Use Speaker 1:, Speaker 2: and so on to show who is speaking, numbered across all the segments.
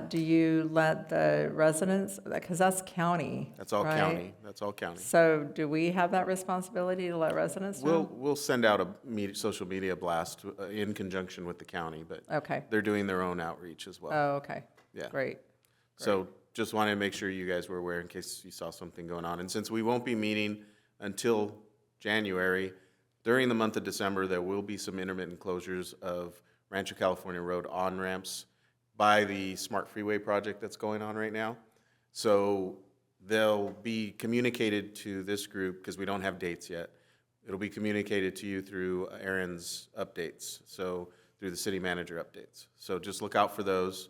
Speaker 1: Do you let the residents, because that's county,
Speaker 2: That's all
Speaker 1: right?
Speaker 2: county, that's all county.
Speaker 1: So do we have that responsibility to let residents
Speaker 2: We'll,
Speaker 1: know?
Speaker 2: we'll send out a media, social media blast uh, in conjunction with the county, but
Speaker 1: Okay.
Speaker 2: they're doing their own outreach as well.
Speaker 1: Oh, okay.
Speaker 2: Yeah.
Speaker 1: Great.
Speaker 2: So just wanted to make sure you guys were aware in case you saw something going on. And since we won't be meeting until January, during the month of December, there will be some intermittent closures of Rancho California Road on-ramps by the Smart Freeway project that's going on right now. So they'll be communicated to this group, because we don't have dates yet. It'll be communicated to you through Aaron's updates, so through the city manager updates. So just look out for those.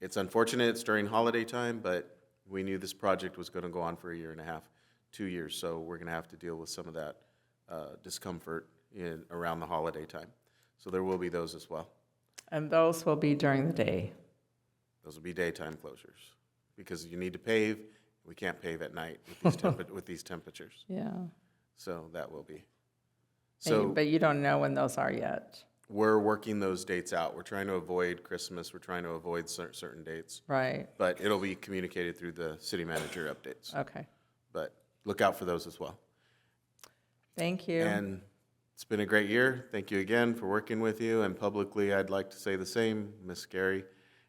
Speaker 2: It's unfortunate, it's during holiday time, but we knew this project was gonna go on for a year and a half, two years, so we're gonna have to deal with some of that uh, discomfort in, around the holiday time. So there will be those as well.
Speaker 1: And those will be during the day.
Speaker 2: Those will be daytime closures, because you need to pave, we can't pave at night with these temp, with these temperatures,
Speaker 1: Yeah. And
Speaker 2: so that will be.
Speaker 1: you-
Speaker 2: So
Speaker 1: But you don't know when those are yet,
Speaker 2: we're working those dates out, we're trying to avoid Christmas, we're trying to avoid cer- certain dates,
Speaker 1: right?
Speaker 2: but it'll be communicated through the city manager updates.
Speaker 1: Okay.
Speaker 2: but look out for those as well.
Speaker 1: Thank you.
Speaker 2: And it's been a great year. Thank you again for working with you. And publicly, I'd like to say the same, Miss Gary,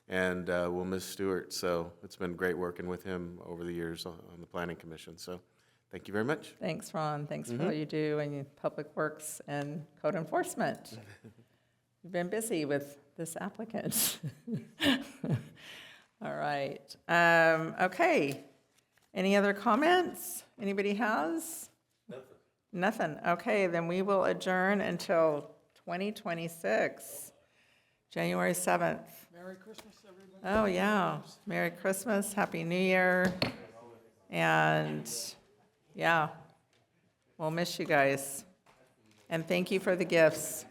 Speaker 2: and uh, we'll miss Stewart. So it's been great working with him over the years on on the Planning Commission. So thank you very much.
Speaker 1: Thanks, Ron. Thanks for all you do in Public Works and code enforcement. You've been busy with this applicant. All right. Um, Okay. Any other comments? Anybody has? Nothing. Nothing. Okay, then we will adjourn until 2026, January 7th. Merry Christmas, everybody. Oh, yeah. Merry Christmas, Happy New Year. And yeah. We'll miss you guys. And thank you for the gifts.